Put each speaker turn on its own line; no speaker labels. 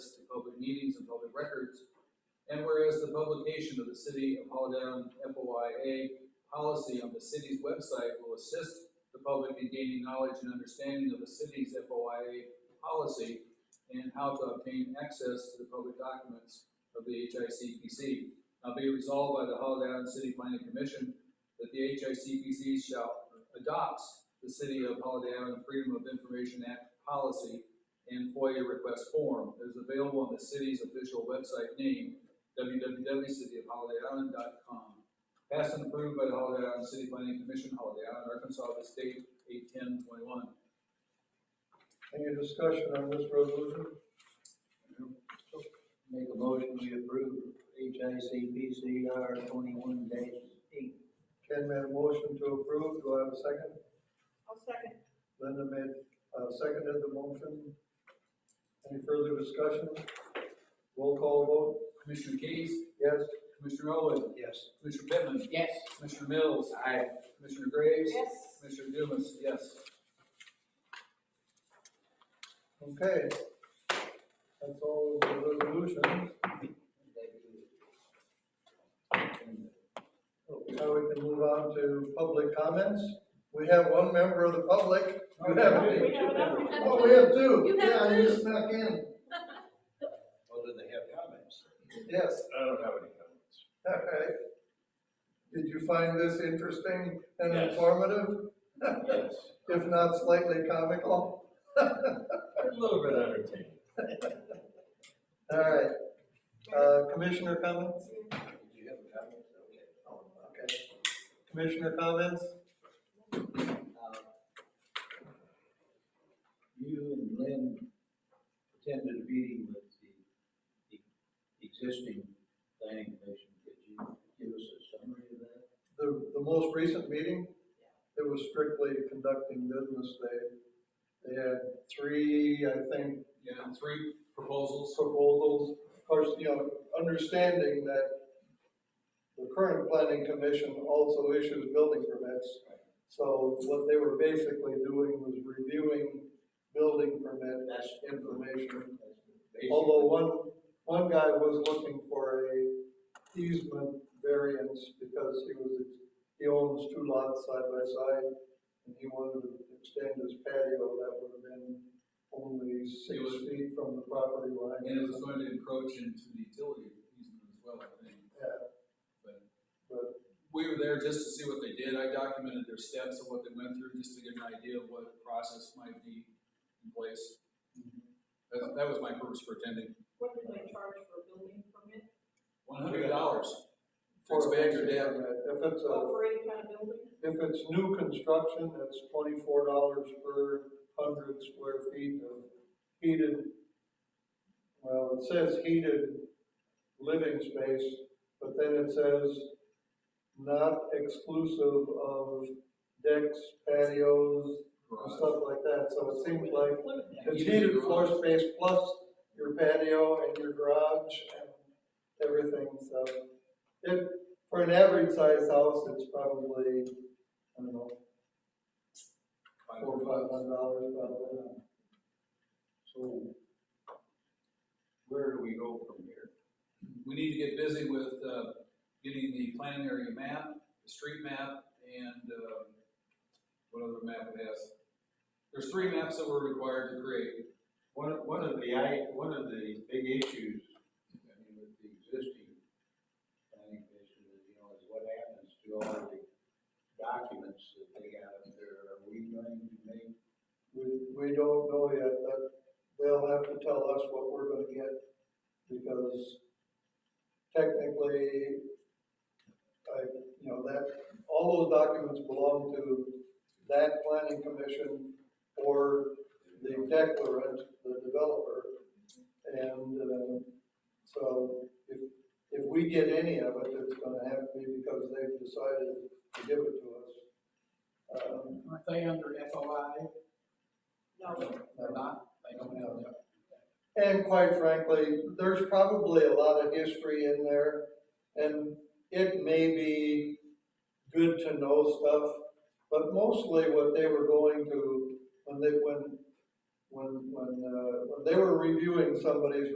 meetings and public records. And whereas the publication of the City of Holiday FOIA policy on the city's website will assist the public in gaining knowledge and understanding of the city's FOIA policy and how to obtain access to the public documents of the HICPC. Now be resolved by the Holiday Island City Planning Commission that the HICPC shall adopts the City of Holiday Island Freedom of Information Act policy and FOIA request form that is available on the city's official website name, www.cityofholidayisland.com. Passed and approved by the Holiday Island City Planning Commission, Holiday Island, Arkansas, this date, eight ten twenty-one.
Any discussion on this resolution?
Make a motion, we approve HICPCR twenty-one dash eight.
Ken made a motion to approve, do I have a second?
I'll second.
Linda made, uh, seconded the motion. Any further discussion? Roll call vote,
Commissioner Case,
yes?
Commissioner Owen,
Yes.
Commissioner Pittman,
Yes.
Commissioner Mills. Aye. Commissioner Graves.
Yes.
Commissioner Dumas, yes.
Okay. That's all of the resolutions. Oh, Now we can move on to public comments. We have one member of the public. You have
We
any?
have another one.
Oh, we have two.
You have
Yeah, I
two.
just snuck in.
Oh,
Well, do they have comments?
Yes,
I don't have any comments.
okay. Did you find this interesting and
Yes.
informative?
Yes.
If not slightly comical?
A little bit entertaining.
All right, uh, commissioner comments?
Did you have a comment? Okay.
Oh, Okay. Commissioner comments?
Uh, You and Lynn attended a meeting with the the existing planning commission. Could you give us a summary of that?
The, the most recent meeting, it was strictly conducting business. They, they had three, I think,
Yeah, three proposals.
proposals, of course, you know, understanding that the current planning commission also issues building permits. So what they were basically doing was reviewing building permit information. Although one, one guy was looking for a easement variance because he was, he owns two lots side by side. And he wanted to extend his patio, that would have been only six
It was-
feet from the property line.
And it was going to encroach into the utility easement as well, I think.
Yeah,
But
but,
we were there just to see what they did. I documented their steps and what they went through, just to get an idea of what the process might be in place.
Mm-hmm.
That, that was my purpose for attending.
What do they charge for a building permit?
One hundred dollars.
for
Expand your
basic
dam.
permit, If it's a,
For any kind of building?
if it's new construction, it's twenty-four dollars per hundred square feet of heated, well, it says heated living space, but then it says not exclusive of decks, patios, and
garage.
stuff like that, so it seems like
Include that.
It's heated floor space plus your patio and your garage and everything, so. It, for an average size house, it's probably, I don't know, four, or five hundred dollars probably.
So where do we go from here?
We need to get busy with, uh, getting the planning area map, the street map, and, uh, what other map it has. There's three maps that we're required to create.
One, of- one of the, I, one of the big issues, I mean, with the existing planning commission is, you know, is what happens to all the documents that they got up there? Are we going to make,
We, we don't know yet, but they'll have to tell us what we're gonna get, because technically, I, you know, that, all those documents belong to that planning commission or the declarant, the developer. And, um, so if, if we get any of it, it's gonna have to be because they've decided to give it to us.
uh,
Um,
Aren't they under FOI?
No,
They're not, they don't have that.
And quite frankly, there's probably a lot of history in there, and it may be good to know stuff, but mostly what they were going to, when they, when, when, when, uh, when they were reviewing somebody's